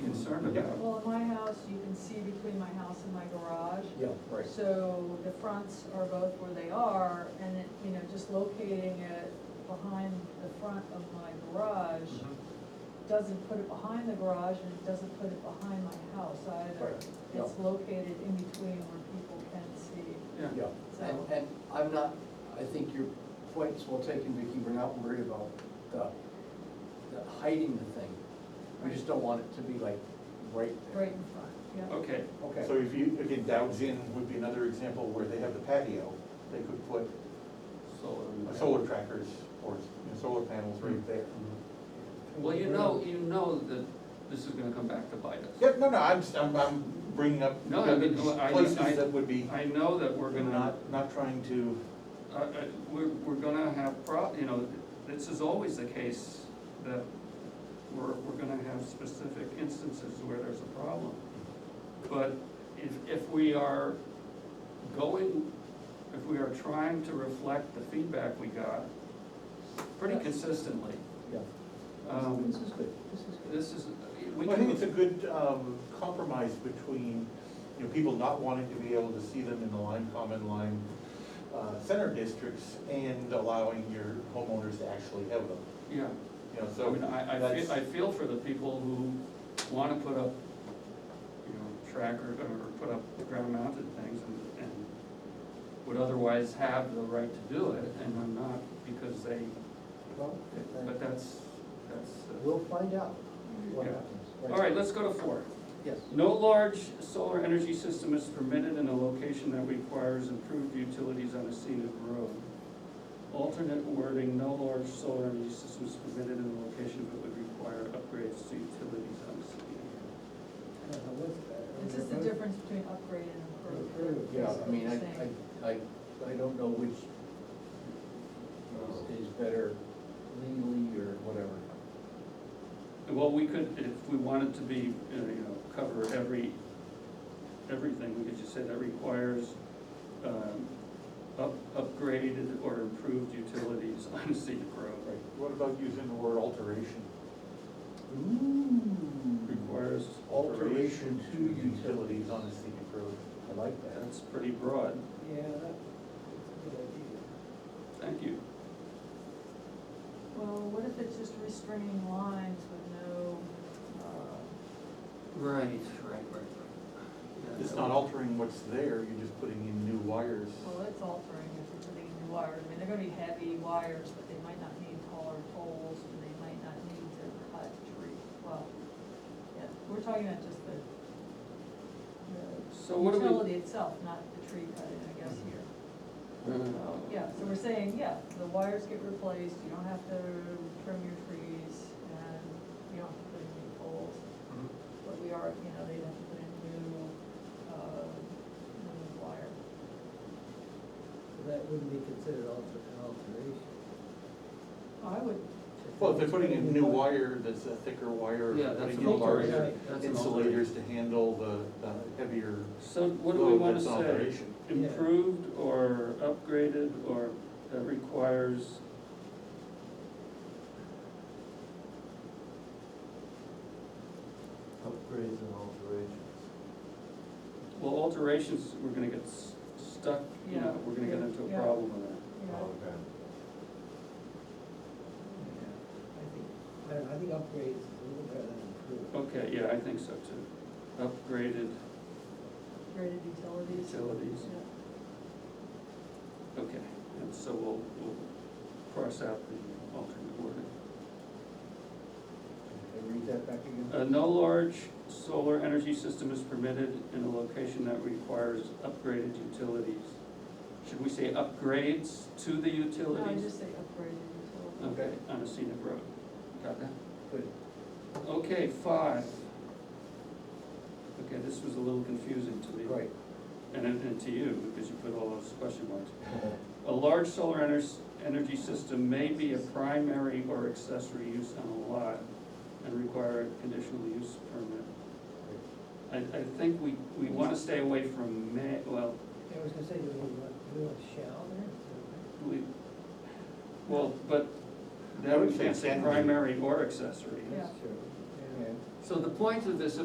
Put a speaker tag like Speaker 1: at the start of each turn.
Speaker 1: apartment.
Speaker 2: Yeah.
Speaker 3: Well, at my house, you can see between my house and my garage.
Speaker 4: Yeah,
Speaker 2: Right.
Speaker 3: So the fronts are both where they are, and it, you know, just locating it behind the front of my garage
Speaker 2: Mhm.
Speaker 4: Mm-hmm.
Speaker 3: doesn't put it behind the garage and it doesn't put it behind my house either.
Speaker 2: Right,
Speaker 4: yeah.
Speaker 3: It's located in between where people can see,
Speaker 4: yeah.
Speaker 3: so.
Speaker 4: And, and I'm not, I think your point's well taken, Vicky, we're not worried about the, the hiding the thing. We just don't want it to be like right there.
Speaker 3: Right in front,
Speaker 4: Oh.
Speaker 3: yeah.
Speaker 1: Okay,
Speaker 4: Okay.
Speaker 2: So if you, again, Dow's Inn would be another example where they have the patio, they could put
Speaker 5: Solar.
Speaker 2: a solar trackers or you know, solar panels right
Speaker 1: Mm-hmm.
Speaker 2: there.
Speaker 1: well, you know, you know that this is gonna come back to bite us.
Speaker 2: Yeah, no, no, I'm, just- I'm, I'm bringing up
Speaker 1: No, I mean, I- I-
Speaker 2: places that would be,
Speaker 1: I know that we're gonna,
Speaker 2: not, not trying to,
Speaker 1: uh, uh, we're, we're gonna have prob, you know, this is always the case that we're, we're gonna have specific instances where there's a problem. But if, if we are going, if we are trying to reflect the feedback we got pretty consistently,
Speaker 4: Yeah.
Speaker 1: um,
Speaker 4: This is good, this is good.
Speaker 1: this is, we
Speaker 2: Well, I think it's a
Speaker 1: can,
Speaker 2: good um, compromise between, you know, people not wanting to be able to see them in the Lime Common, Lime uh, Center districts and allowing your homeowners to actually have them,
Speaker 1: yeah.
Speaker 2: you know,
Speaker 1: I
Speaker 2: so.
Speaker 1: mean, I, I
Speaker 2: that's-
Speaker 1: feel, I feel for the people who wanna put up, you know, tracker, or put up ground mounted things and, and would otherwise have the right to do it, and I'm not, because they,
Speaker 4: Well,
Speaker 1: but that's, that's. uh,
Speaker 4: We'll find out what
Speaker 1: Yeah.
Speaker 4: happens.
Speaker 1: All right, let's go to four.
Speaker 4: Yes.
Speaker 1: No large solar energy system is permitted in a location that requires improved utilities on a scenic road. Alternate wording, no large solar energy system is permitted in a location that would require upgrades to utilities on a scenic
Speaker 3: It's just the difference between upgrade and improve.
Speaker 4: Yeah,
Speaker 3: is
Speaker 4: I
Speaker 3: what
Speaker 4: mean,
Speaker 3: you're
Speaker 4: I,
Speaker 3: saying.
Speaker 4: I, I, I don't know which is- is better legally or whatever.
Speaker 1: road. Well, we could, if we wanted to be, uh, you know, cover every, everything, we could just say that requires, um, up, upgraded or improved utilities on a scenic road.
Speaker 2: Right. What about using the word alteration?
Speaker 4: Ooh,
Speaker 1: Requires
Speaker 4: Alteration
Speaker 2: Alteration
Speaker 4: to
Speaker 2: to utilities on a scenic road.
Speaker 4: I like that.
Speaker 1: That's pretty broad,
Speaker 5: Yeah, that's a good idea.
Speaker 1: thank you.
Speaker 3: Well, what if it's just restringing lines with no, uh,
Speaker 1: Right, right, right, right.
Speaker 2: It's not altering what's there, you're just putting in new wires.
Speaker 3: well, it's altering if you're putting in new wires. I mean, they're gonna be heavy wires, but they might not need taller poles, and they might not need to cut tree. Well, yeah, we're talking about just the,
Speaker 1: So
Speaker 3: the
Speaker 1: what do we? Mm-hmm.
Speaker 3: utility itself, not the tree cutting, I guess, here.
Speaker 2: Mm-hmm.
Speaker 1: Uh,
Speaker 3: Yeah, so we're saying, yeah, the wires get replaced, you don't have to trim your trees, and you don't have to put in new poles.
Speaker 1: Mhm.
Speaker 3: But we are, you know, they'd have to put in new, uh, new wire.
Speaker 5: That wouldn't be considered alter, an alteration.
Speaker 3: I would,
Speaker 2: Well, if they're putting in new wire, that's a thicker wire,
Speaker 1: Yeah,
Speaker 2: they're
Speaker 1: that's
Speaker 2: putting
Speaker 1: an
Speaker 2: in larger
Speaker 5: alteration.
Speaker 1: alteration, that's an alteration.
Speaker 2: insulators to handle the, the heavier
Speaker 1: So what do we
Speaker 2: load
Speaker 1: wanna
Speaker 2: that's an
Speaker 1: say?
Speaker 2: alteration.
Speaker 5: Yeah.
Speaker 1: Improved or upgraded or that requires?
Speaker 5: Upgrades and alterations.
Speaker 1: Well, alterations, we're gonna get s- stuck, you know,
Speaker 3: Yeah,
Speaker 1: we're gonna get
Speaker 3: yeah,
Speaker 1: into a
Speaker 3: yeah.
Speaker 1: problem with that.
Speaker 3: you know,
Speaker 5: I think, I don't know, I think upgrades is a little better than improved.
Speaker 1: Okay, yeah, I think so too. Upgraded
Speaker 3: graded utilities.
Speaker 1: utilities,
Speaker 3: Yeah.
Speaker 1: okay, and so we'll, we'll cross out the alternate wording.
Speaker 4: Can I read that back again?
Speaker 1: Uh, no large solar energy system is permitted in a location that requires upgraded utilities. Should we say upgrades to the
Speaker 3: No, I
Speaker 1: utilities?
Speaker 3: just say upgraded utilities.
Speaker 1: Okay, on a scenic road, got that?
Speaker 4: Good.
Speaker 1: Okay, five. Okay, this was a little confusing to me.
Speaker 4: Right,
Speaker 1: And, and to you, because you put all those question marks. A large solar ener- energy system may be a primary or accessory use on a lot and require a conditional use permit. I, I think we, we wanna stay away from may, well,
Speaker 5: Yeah, I was gonna say, do we want, do we want shall there?
Speaker 1: we, well, but
Speaker 2: I
Speaker 1: then
Speaker 2: would
Speaker 1: we
Speaker 2: say
Speaker 1: can't say
Speaker 2: can be.
Speaker 1: primary or accessory.
Speaker 3: Yeah.
Speaker 5: That's true. Yeah.
Speaker 4: and
Speaker 1: So the point of this